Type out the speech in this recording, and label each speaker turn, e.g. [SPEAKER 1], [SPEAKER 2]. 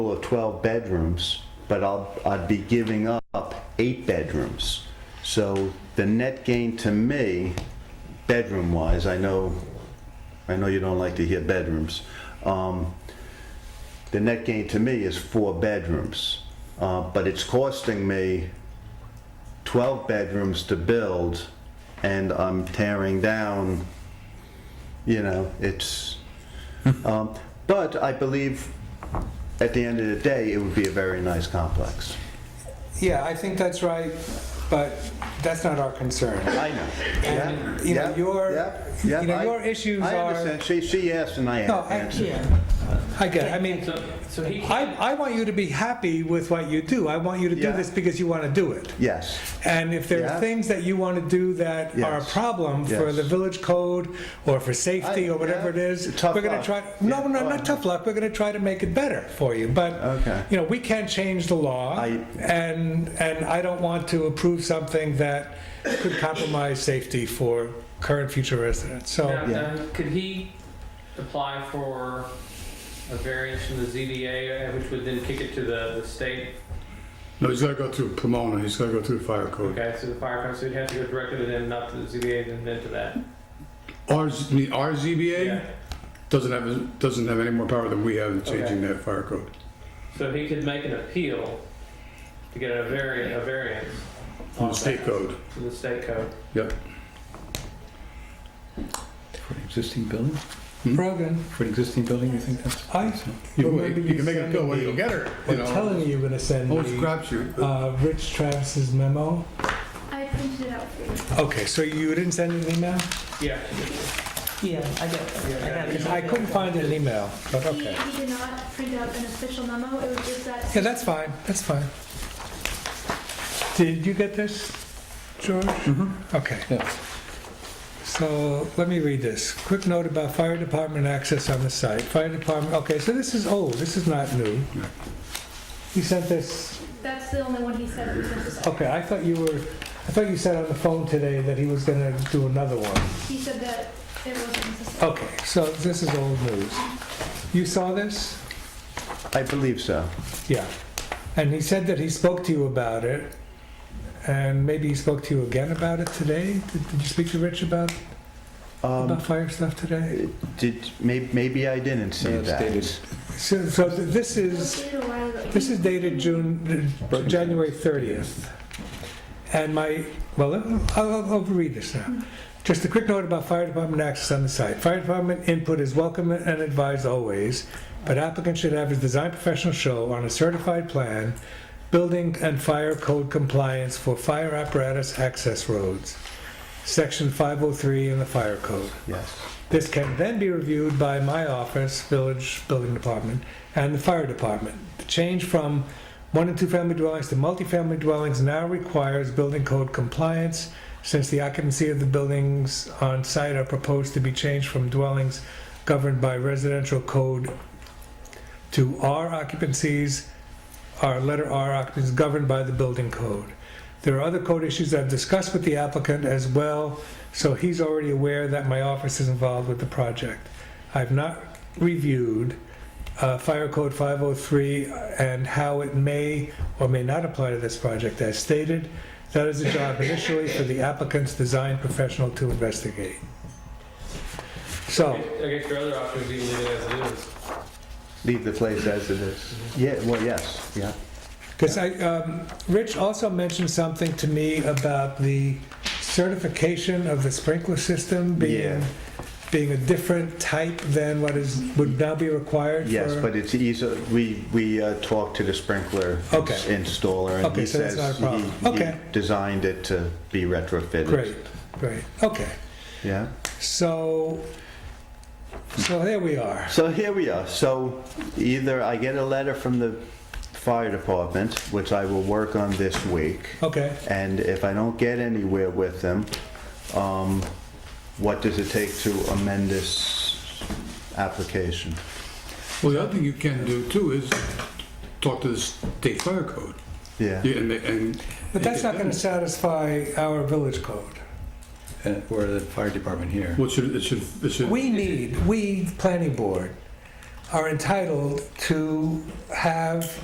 [SPEAKER 1] total of 12 bedrooms, but I'll, I'd be giving up eight bedrooms. So the net gain to me, bedroom-wise, I know, I know you don't like to hear bedrooms. um, The net gain to me is four bedrooms, Uh, but it's costing me 12 bedrooms to build, and I'm tearing down, you know, it's, um, but I believe at the end of the day, it would be a very nice complex.
[SPEAKER 2] Yeah, I think that's right, but that's not our concern.
[SPEAKER 1] I know. Yeah,
[SPEAKER 2] And, you know,
[SPEAKER 1] yeah,
[SPEAKER 2] your-
[SPEAKER 1] yeah,
[SPEAKER 2] you
[SPEAKER 1] yeah,
[SPEAKER 2] know,
[SPEAKER 1] I-
[SPEAKER 2] your issues
[SPEAKER 1] I
[SPEAKER 2] are-
[SPEAKER 1] understand. She, she asked and I
[SPEAKER 2] No, I-
[SPEAKER 1] answered.
[SPEAKER 3] Yeah,
[SPEAKER 2] I get it, I mean,
[SPEAKER 3] so, so he
[SPEAKER 2] I,
[SPEAKER 3] can't,
[SPEAKER 2] I want you to be happy with what you do. I want you to do
[SPEAKER 1] Yeah.
[SPEAKER 2] this because you want to do it.
[SPEAKER 1] Yes,
[SPEAKER 2] And if there
[SPEAKER 1] Yeah.
[SPEAKER 2] are things that you want to do that are a
[SPEAKER 1] Yes.
[SPEAKER 2] problem for
[SPEAKER 1] Yes.
[SPEAKER 2] the village code or for safety
[SPEAKER 1] I-
[SPEAKER 2] or whatever it
[SPEAKER 1] yeah.
[SPEAKER 2] is,
[SPEAKER 1] Tough
[SPEAKER 2] we're going to
[SPEAKER 1] luck.
[SPEAKER 2] try, no,
[SPEAKER 1] Yeah.
[SPEAKER 2] no,
[SPEAKER 1] Oh, I
[SPEAKER 2] not tough luck, we're going to try to make it better for you. But,
[SPEAKER 1] Okay.
[SPEAKER 2] you know, we can't change the law
[SPEAKER 1] I-
[SPEAKER 2] and, and I don't want to approve something that could compromise safety for current, future residents.
[SPEAKER 3] now,
[SPEAKER 2] So,
[SPEAKER 1] yeah.
[SPEAKER 3] now, could he apply for a variance from the ZDA, uh, which would then kick it to the, the state?
[SPEAKER 4] No, he's gotta go through Pomona, he's gotta go through the fire code.
[SPEAKER 3] Okay, so the fire company, so he'd have to go directly to them, not to the ZBA, and then to that.
[SPEAKER 4] Ours, the RZBA
[SPEAKER 3] Yeah.
[SPEAKER 4] doesn't have, doesn't have any more power than we have in changing that fire code.
[SPEAKER 3] So he could make an appeal to get a variant, a variance.
[SPEAKER 4] On
[SPEAKER 3] on
[SPEAKER 4] the state
[SPEAKER 3] that,
[SPEAKER 4] code,
[SPEAKER 3] To the state code.
[SPEAKER 4] yep.
[SPEAKER 5] For an existing building?
[SPEAKER 2] Brogan,
[SPEAKER 5] For an existing building, you think that's?
[SPEAKER 2] I,
[SPEAKER 4] Hmm? You
[SPEAKER 2] Well,
[SPEAKER 4] can
[SPEAKER 2] maybe
[SPEAKER 4] make, you can make
[SPEAKER 2] you
[SPEAKER 4] an appeal when you
[SPEAKER 2] send
[SPEAKER 4] get her, you
[SPEAKER 2] I'm telling
[SPEAKER 4] know. oh,
[SPEAKER 2] you, you're going to send
[SPEAKER 4] Always
[SPEAKER 2] me
[SPEAKER 4] crapshoot. but-
[SPEAKER 2] uh, Rich Travis's memo.
[SPEAKER 6] I printed it out for you.
[SPEAKER 2] Okay, so you didn't send an email?
[SPEAKER 3] Yeah.
[SPEAKER 7] Yeah, I got it. I got it.
[SPEAKER 2] I couldn't find an email, but
[SPEAKER 6] He,
[SPEAKER 2] okay.
[SPEAKER 6] he did not print out an official memo, it was just that.
[SPEAKER 2] Yeah, that's fine, that's fine. Did you get this, George? Okay.
[SPEAKER 5] Yeah.
[SPEAKER 2] So let me read this. Quick note about fire department access on the site. Fire department, okay, so this is old, this is not new. You sent this,
[SPEAKER 6] That's the only one he said was necessary.
[SPEAKER 2] okay, I thought you were, I thought you said on the phone today that he was gonna do another one.
[SPEAKER 6] He said that it wasn't necessary.
[SPEAKER 2] Okay, so this is old news. You saw this?
[SPEAKER 1] I believe so.
[SPEAKER 2] Yeah. And he said that he spoke to you about it, and maybe he spoke to you again about it today? Did, did you speak to Rich about, about
[SPEAKER 1] Um,
[SPEAKER 2] fire stuff today?
[SPEAKER 1] Did, may- maybe I didn't see
[SPEAKER 5] No, it's dated.
[SPEAKER 1] that.
[SPEAKER 2] So, so th- this
[SPEAKER 6] It was
[SPEAKER 2] is,
[SPEAKER 6] dated a while ago.
[SPEAKER 2] this is dated June, uh, January 30th. And my, well, I'll, I'll overread this now. Just a quick note about fire department access on the site. Fire department input is welcome and advised always, but applicant should have his design professional show on a certified plan, building and fire code compliance for fire apparatus access roads, section 503 in the fire code.
[SPEAKER 1] Yes.
[SPEAKER 2] This can then be reviewed by my office, village building department, and the fire department. The change from one and two family dwellings to multifamily dwellings now requires building code compliance since the occupancy of the buildings on site are proposed to be changed from dwellings governed by residential code to R occupancies, our letter R occupancies governed by the building code. There are other code issues I've discussed with the applicant as well, so he's already aware that my office is involved with the project. I've not reviewed uh, Fire Code 503 and how it may or may not apply to this project as stated. That is a job initially for the applicant's design professional to investigate.
[SPEAKER 3] I
[SPEAKER 4] Oh.
[SPEAKER 2] So,
[SPEAKER 3] guess- I guess your other option is you leave it as it is.
[SPEAKER 1] Leave the place as it is. Yeah, well, yes, yeah.
[SPEAKER 2] Because I, um, Rich also mentioned something to me about the certification of the sprinkler system being,
[SPEAKER 1] Yeah.
[SPEAKER 2] being a different type than what is, would now be required for.
[SPEAKER 1] Yes, but it's easier, we, we uh, talked to the sprinkler
[SPEAKER 2] Okay.
[SPEAKER 1] installer, and
[SPEAKER 2] Okay,
[SPEAKER 1] he
[SPEAKER 2] so that's
[SPEAKER 1] says
[SPEAKER 2] not a problem.
[SPEAKER 1] he- he
[SPEAKER 2] Okay.
[SPEAKER 1] designed it to be retrofitted.
[SPEAKER 2] Great, great, okay.
[SPEAKER 1] Yeah,
[SPEAKER 2] So, so there we are.
[SPEAKER 1] so here we are. So either I get a letter from the fire department, which I will work on this week,
[SPEAKER 2] Okay,
[SPEAKER 1] and if I don't get anywhere with them, um, what does it take to amend this application?
[SPEAKER 4] Well, the other thing you can do too is talk to the state fire code.
[SPEAKER 1] Yeah,
[SPEAKER 4] Yeah, and, and.
[SPEAKER 2] but that's not gonna satisfy our village code.
[SPEAKER 5] And- Or the fire department here?
[SPEAKER 4] What should, it should, it should.
[SPEAKER 2] We need, we, planning board, are entitled to have